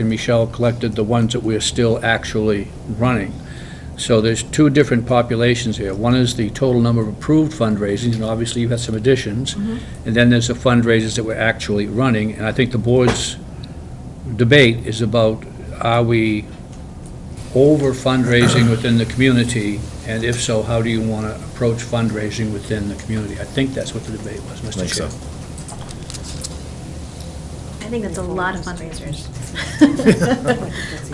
and Michelle collected the ones that we're still actually running. So there's two different populations here. One is the total number of approved fundraisings, and obviously you've had some additions. And then there's the fundraisers that we're actually running, and I think the board's debate is about, are we over fundraising within the community? And if so, how do you want to approach fundraising within the community? I think that's what the debate was, Mr. Chair. Think so. I think that's a lot of fundraisers.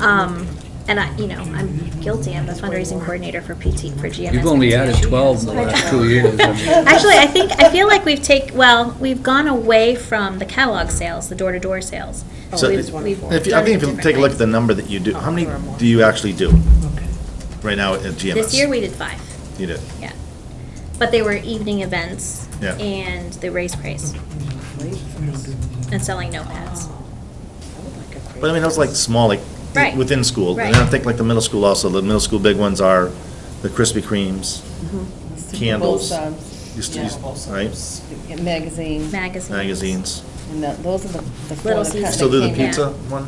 Um, And I, you know, I'm guilty, I'm the fundraising coordinator for PT, for GMS. You've only added PT. 12 in the last two years. I mean- Actually, I think, I feel like we've take, well, we've gone away from the catalog sales, the door-to-door sales. So We've- if- we've If, you- I done it think if you take a look at the number that you do, how many do you actually do right now at GMS? differently. This year, we did five, You did, yeah. But they were evening events. Yeah. And the race price, and selling notepads. but I mean, those like small, like, Right. within school. And Right. then I think like the middle school also, the middle school big ones are the Krispy Kremes, candles, um, Used to- used- right? Magazine, Magazines. magazines. and that- those are the the four Little that Caesar. cut- Still that do the came out. pizza one?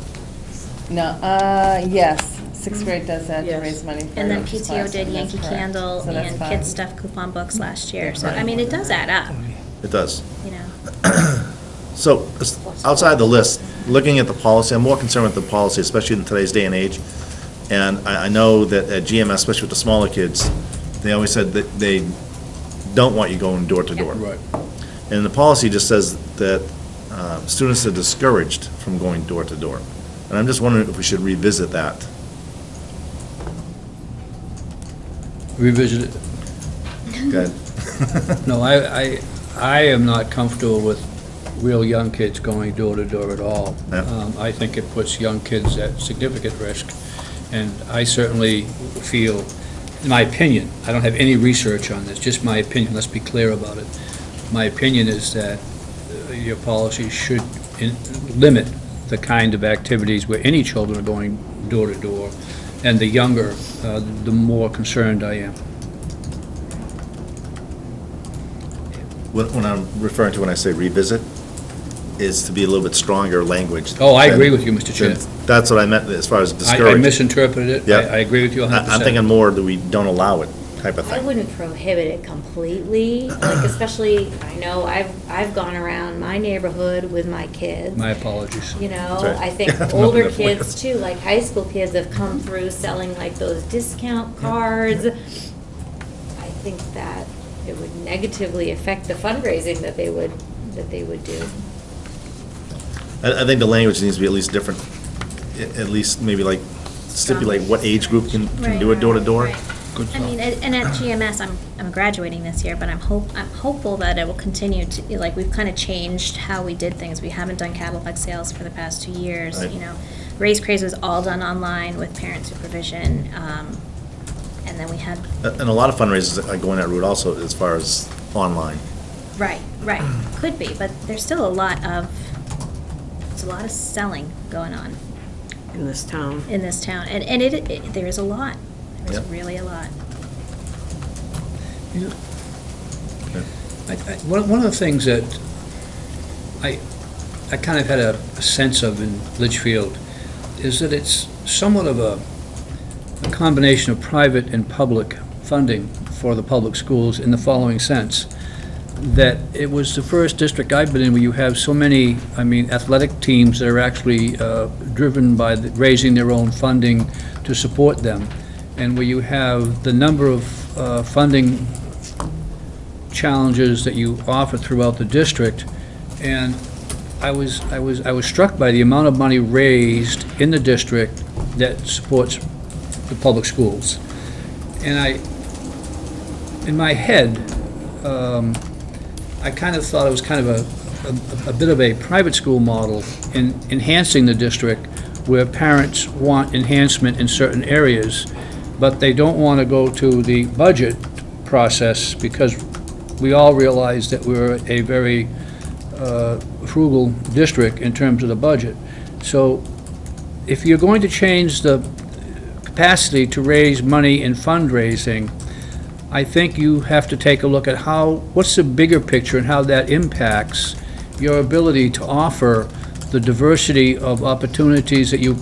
No, uh, yes, sixth grade does that to Yes. raise money for. And then each PTO class, did and that's Yankee correct. Candle So that's and fine. Kids Stuff coupon books last year. So, I Right. mean, it does add up, It does. you know. So, as- outside the list, looking at the policy, I'm more concerned with the policy, especially in today's day and age. And I, I know that at GMS, especially with the smaller kids, they always said that they don't want you going door to door. Right. And the policy just says that uh, students are discouraged from going door to door. And I'm just wondering if we should revisit that. Revisit it. Good. Mm-hmm. No, I, I, I am not comfortable with real young kids going door to door at all. Yeah. Um, I think it puts young kids at significant risk, and I certainly feel, in my opinion, I don't have any research on this, just my opinion, let's be clear about it. My opinion is that uh, your policy should in- limit the kind of activities where any children are going door to door, and the younger, uh, the more concerned I am. When, when I'm referring to when I say revisit, is to be a little bit stronger language. Oh, I than- agree with you, Mr. Chair. than- That's what I meant as far as I- discouraged. I misinterpreted it. Yeah. I I agree with you I- 100%. I'm thinking more that we don't allow it type of I thing. wouldn't prohibit it completely, like especially, I know I've, I've gone around my neighborhood with my kids. My apologies. You know, That's right. I I'm up think in older that point. kids too, like high school kids have come through selling like those discount cards. I think that it would negatively affect the fundraising that they would, that they would do. I, I think the language needs to be at least different, A- at least maybe like stipulate what age group can, can do it door to door. Right, right, right. I mean, and and at GMS, I'm, I'm graduating this year, but I'm hope, I'm hopeful that it will continue to, like, we've kind of changed how we did things. We haven't done catalog sales for the past two years, Right. you know. Raise Craze was all done online with parent supervision, um, and then we had, A- And a lot of fundraisers are going that route also as far as online. right, right, could be, but there's still a lot of, there's a lot of selling going on. in this town. in this town, and, and it, it- there is a lot. There's Yep. really a lot. I- I- One one of the things that I, I kind of had a a sense of in Litchfield is that it's somewhat of a a combination of private and public funding for the public schools in the following sense, that it was the first district I've been in where you have so many, I mean, athletic teams that are actually uh, driven by the- raising their own funding to support them, and where you have the number of uh, funding challenges that you offer throughout the district, and I was, I was, I was struck by the amount of money raised in the district that supports the public schools. And I, in my head, um, I kind of thought it was kind of a- a, a bit of a private school model in enhancing the district where parents want enhancement in certain areas, but they don't want to go to the budget process because we all realize that we're a very uh, frugal district in terms of the budget. So if you're going to change the capacity to raise money in fundraising, I think you have to take a look at how, what's the bigger picture and how that impacts your ability to offer the diversity of opportunities that you